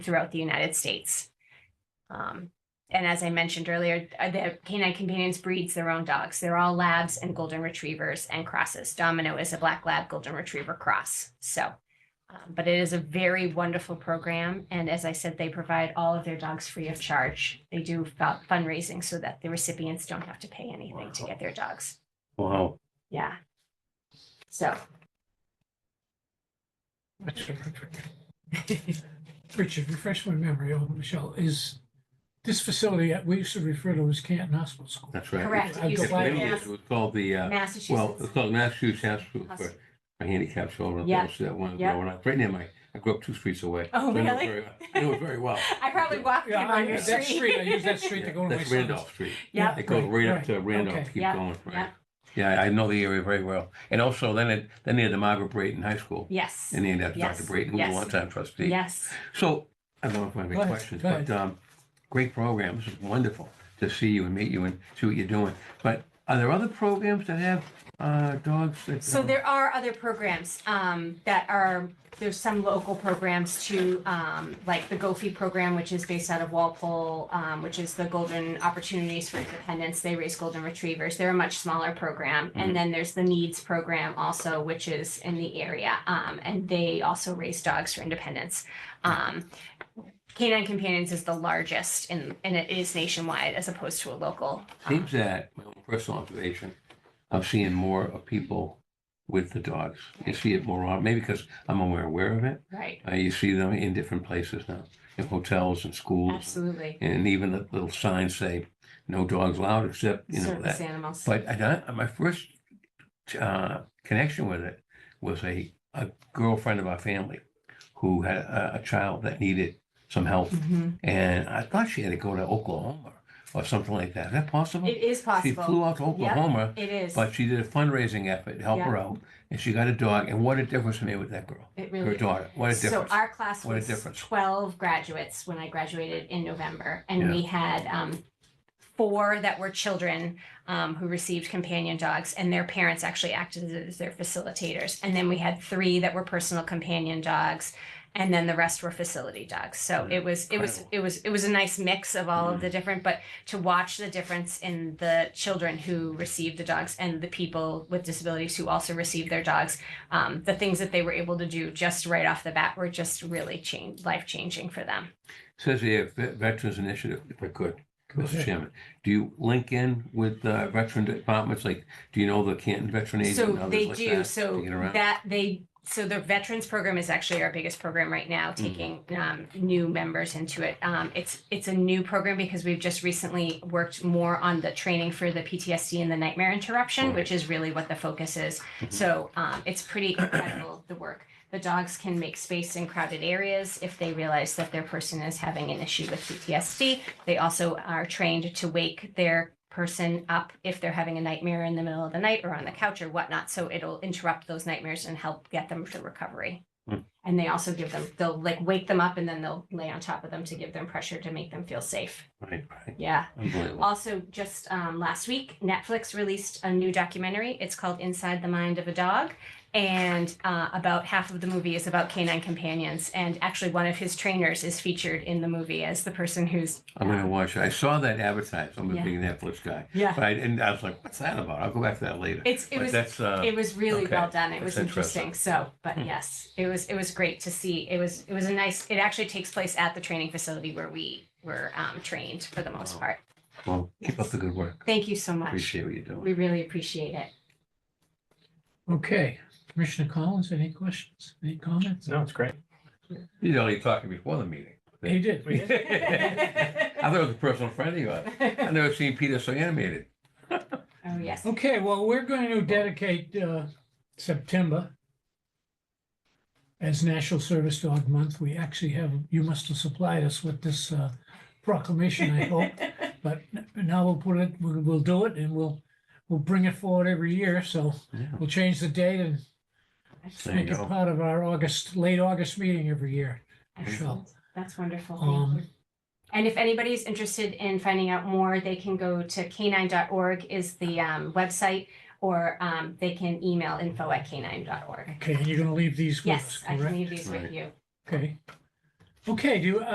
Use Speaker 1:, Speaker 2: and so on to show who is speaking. Speaker 1: throughout the United States. Um, and as I mentioned earlier, uh, the canine companions breeds their own dogs. They're all labs and golden retrievers and crosses. Domino is a black lab golden retriever cross. So, um, but it is a very wonderful program. And as I said, they provide all of their dogs free of charge. They do fu- fundraising so that the recipients don't have to pay anything to get their dogs.
Speaker 2: Wow.
Speaker 1: Yeah. So
Speaker 3: Richard, refresh my memory, oh, Michelle, is this facility, that we used to refer to as Canton Hospital School.
Speaker 2: That's right.
Speaker 1: Correct.
Speaker 3: I've
Speaker 1: You
Speaker 2: It's
Speaker 3: got
Speaker 1: said
Speaker 3: my-
Speaker 1: Right.
Speaker 2: mainly It was called the, uh, well,
Speaker 1: Massachusetts.
Speaker 2: it's called Massachusetts Hospital for
Speaker 1: Hos-
Speaker 2: for handicapped children.
Speaker 1: Yeah.
Speaker 2: That was that one
Speaker 1: Yeah.
Speaker 2: growing up. Right near my, I grew up two streets away.
Speaker 1: Oh,
Speaker 2: So I know it
Speaker 1: really?
Speaker 2: very- I know it very well.
Speaker 1: I probably walked
Speaker 3: Yeah,
Speaker 1: him
Speaker 3: I
Speaker 1: on your
Speaker 3: use that street, I
Speaker 1: street.
Speaker 3: use that street to
Speaker 2: Yeah,
Speaker 3: go to my
Speaker 2: That's
Speaker 3: son's.
Speaker 2: Randolph Street.
Speaker 1: Yeah.
Speaker 2: It goes right up
Speaker 3: right,
Speaker 2: to Randolph,
Speaker 3: okay.
Speaker 2: keep
Speaker 1: Yeah,
Speaker 2: going, right?
Speaker 1: yeah.
Speaker 2: Yeah, I know the area very well. And also then it, then they had the Margaret Brayton High School.
Speaker 1: Yes.
Speaker 2: And they ended up Dr.
Speaker 1: Yes,
Speaker 2: Brayton, who was a
Speaker 1: yes,
Speaker 2: longtime trustee.
Speaker 1: Yes.
Speaker 2: So I don't know if I have any
Speaker 3: Go ahead,
Speaker 2: questions,
Speaker 3: go
Speaker 2: but um, great program. This is wonderful to see you and meet you and see what you're doing. But are there other programs that have uh, dogs? that,
Speaker 1: So
Speaker 2: um,
Speaker 1: there are other programs um, that are, there's some local programs too, um, like the GOFI program, which is based out of Walpole, um, which is the Golden Opportunities for Independence. They raise golden retrievers. They're a much smaller program.
Speaker 2: Mhm.
Speaker 1: And then there's the Needs program also, which is in the area. Um, and they also raise dogs for independence. Um, Canine Companions is the largest and, and it is nationwide as opposed to a local. um,
Speaker 2: Seems that, my own personal observation, I'm seeing more of people with the dogs. You see it more often, maybe because I'm more aware of it.
Speaker 1: Right,
Speaker 2: Uh, You see them in different places now, in hotels and schools.
Speaker 1: absolutely.
Speaker 2: And even the little signs say, no dogs allowed except, you know, that
Speaker 1: Service animals.
Speaker 2: But I don't, my first uh, connection with it was a, a girlfriend of our family who had a, a child that needed some help.
Speaker 1: Mhm.
Speaker 2: And I thought she had to go to Oklahoma or something like that. Is that possible?
Speaker 1: It is
Speaker 2: She
Speaker 1: possible.
Speaker 2: flew out to Oklahoma,
Speaker 1: It is.
Speaker 2: but she did a fundraising effort to help her out. And she got a dog. And what a difference it made with that girl,
Speaker 1: it
Speaker 2: her
Speaker 1: really
Speaker 2: daughter. What a
Speaker 1: so
Speaker 2: difference.
Speaker 1: our class
Speaker 2: What a
Speaker 1: was
Speaker 2: difference.
Speaker 1: 12 graduates when I graduated in November and
Speaker 2: Yeah.
Speaker 1: we had um, four that were children um, who received companion dogs and their parents actually acted as their facilitators and then we had three that were personal companion dogs and then the rest were facility dogs so
Speaker 2: Yeah,
Speaker 1: it was it was
Speaker 2: Mm-hmm. incredible.
Speaker 1: it was it was a nice mix of all
Speaker 2: Mhm.
Speaker 1: of the different but to watch the difference in the children who received the dogs and the people with disabilities who also received their dogs um, the things that they were able to do just right off the bat were just really change, life changing for them.
Speaker 2: Says here, Ve- Veterans Initiative, if I could.
Speaker 3: Go
Speaker 2: Mr.
Speaker 3: ahead.
Speaker 2: Chairman, do you link in with uh, veteran departments? Like, do you know the Canton Veteran Agent? and
Speaker 1: So
Speaker 2: others
Speaker 1: they
Speaker 2: like
Speaker 1: do,
Speaker 2: that
Speaker 1: so
Speaker 2: to get around?
Speaker 1: that they, so the veterans program is actually our biggest program right
Speaker 2: Mm.
Speaker 1: now, taking um new members into it. Um it's it's a new program because we've just recently worked more on the training for the PTSD and the nightmare interruption,
Speaker 2: Right.
Speaker 1: which is really what the focus is.
Speaker 2: Mhm.
Speaker 1: So um it's pretty incredible, the work. The dogs can make space in crowded areas if they realize that their person is having an issue with PTSD. They also are trained to wake their person up if they're having a nightmare in the middle of the night or on the couch or whatnot. So it'll interrupt those nightmares and help get them to recovery.
Speaker 2: Hmm.
Speaker 1: And they also give them, they'll like wake them up and then they'll lay on top of them to give them pressure to make them feel safe.
Speaker 2: Right, right.
Speaker 1: Yeah.
Speaker 2: Unbelievable.
Speaker 1: Also, just um, last week, Netflix released a new documentary. It's called Inside the Mind of a Dog. And uh, about half of the movie is about canine companions. And actually, one of his trainers is featured in the movie as the person who's. um,
Speaker 2: I'm gonna watch it. I saw that advertised. I'm a
Speaker 1: Yeah.
Speaker 2: big Netflix guy.
Speaker 1: Yeah.
Speaker 2: But I didn't, I was like, what's that about? I'll go back to that later.
Speaker 1: It's, it
Speaker 2: But
Speaker 1: was
Speaker 2: that's, uh,
Speaker 1: it was really
Speaker 2: okay.
Speaker 1: well done. It
Speaker 2: That's
Speaker 1: was interesting. So, but
Speaker 2: Hmm.
Speaker 1: yes, it was it was great to see. It was it was a nice. It actually takes place at the training facility where we were um, trained for the most
Speaker 2: Wow.
Speaker 1: part.
Speaker 2: well, keep up the good work.
Speaker 1: Thank you so much.
Speaker 2: Appreciate what you're doing.
Speaker 1: We really appreciate it.
Speaker 3: Okay, Commissioner Collins, any questions, any comments?
Speaker 4: No, it's great.
Speaker 2: You know, you're talking before the meeting.
Speaker 3: He did.
Speaker 4: We-
Speaker 2: I thought it was a personal friend of yours. I've never seen Peter so animated.
Speaker 1: Oh yes.
Speaker 3: Okay, well, we're going to dedicate uh, September as National Service Dog Month. We actually have, you must have supplied us with this uh, proclamation, I hope. But now we'll put it, we'll we'll do it and we'll, we'll bring it forward every year. So
Speaker 2: Yeah.
Speaker 3: we'll change the date and
Speaker 2: There you
Speaker 3: make it
Speaker 2: go.
Speaker 3: part of our August, late August meeting every year.
Speaker 1: Excellent. That's wonderful.
Speaker 3: Um,
Speaker 1: Thank you. And if anybody's interested in finding out more, they can go to canine.org is the um, website, or um, they can email info at canine.org.
Speaker 3: Okay, and you're going to leave these with us,
Speaker 1: Yes, I can
Speaker 3: correct?
Speaker 1: leave these with
Speaker 2: Right.
Speaker 1: you.
Speaker 3: Okay. Okay, do, you-